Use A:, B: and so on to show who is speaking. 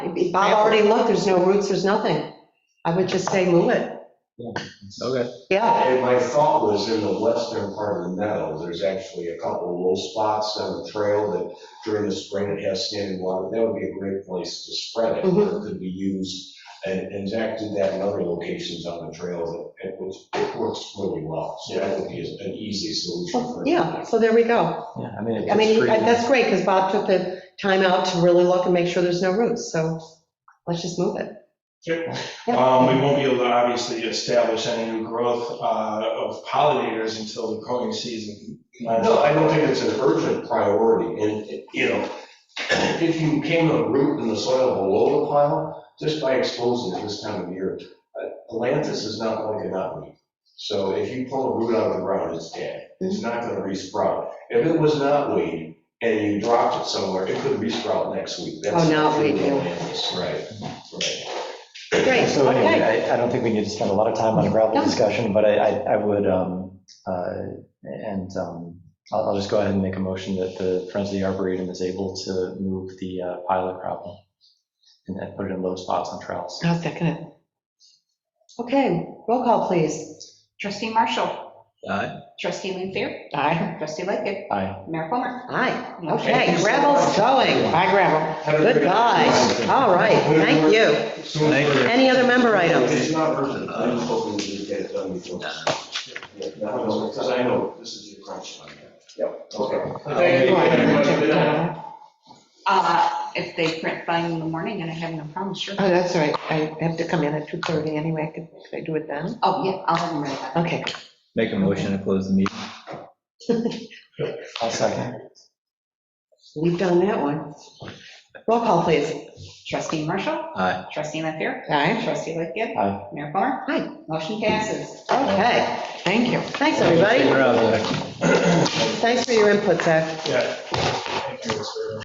A: Bob already looked, there's no roots, there's nothing. I would just say move it.
B: Okay.
A: Yeah,
C: And my thought was in the western part of the meadow, there's actually a couple of little spots on the trail that during the spring it has standing water. That would be a great place to spread it, where
A: Mm-hmm.
C: it could be used. And and Zach did that in other locations on the trail, that- it was, it works really well. So that would be an easy solution for.
A: yeah, so there we go.
B: Yeah, I mean,
A: I
B: it's
A: mean,
B: free.
A: that's great, because Bob took the time out to really look and make sure there's no roots, so let's just move it.
D: Um, We won't be able to obviously establish any new growth uh, of pollinators until the growing season.
C: No, I don't think it's an urgent priority, and, you know, if you came to a root in the soil below the pile, just by exposing it this time of year, uh, Atlantis is not going to not weed. So if you pull a root out of the ground, it's dead, it's not gonna resprout. If it was not weed, and you dropped it somewhere, it could resprout next week. That's
A: Oh, now
C: the
A: we
C: thing
A: do.
C: with Atlantis, Right, right.
A: Great,
B: So anyway,
A: okay.
B: I, I don't think we need to spend a lot of time on a gravel
A: No.
B: discussion, but I, I I would, um, uh, and um, I'll, I'll just go ahead and make a motion that the Friends of the Arboretum is able to move the uh, pilot gravel and then put it in low spots on trails.
A: I'll second it. Okay, roll call, please.
E: Trustee Marshall.
F: Aye.
E: Trustee Linfair.
A: Aye.
E: Trustee Lightgev.
B: Aye.
E: Mayor Plummer.
A: Aye,
C: Thank
A: okay,
C: you so
A: gravel's
C: much.
A: going. Hi, gravel. Goodbye. All right, thank you.
F: Thank you.
A: Any other member items?
C: It's not urgent, I'm hoping we can get it done before. Yeah, no, Because I know this is your crunch time. Yep. Okay.
E: Uh, If they print by in the morning and I have no problem, sure.
A: Oh, that's all right, I have to come in at 2:30 anyway, could could I do it then?
E: Oh, yeah, I'll have them ready. by-
A: Okay,
F: Make a motion to close the meeting.
B: I'll second.
A: we've done that one. Roll call, please.
E: Trustee Marshall.
F: Aye.
E: Trustee Linfair.
A: Aye.
E: Trustee Lightgev.
B: Aye.
E: Mayor Plummer.
A: Aye.
E: Motion passes.
A: Okay, thank you. Thanks, everybody.
F: We're out of there.
A: Thanks for your input, Zach.
D: Yeah. Thank you, sir.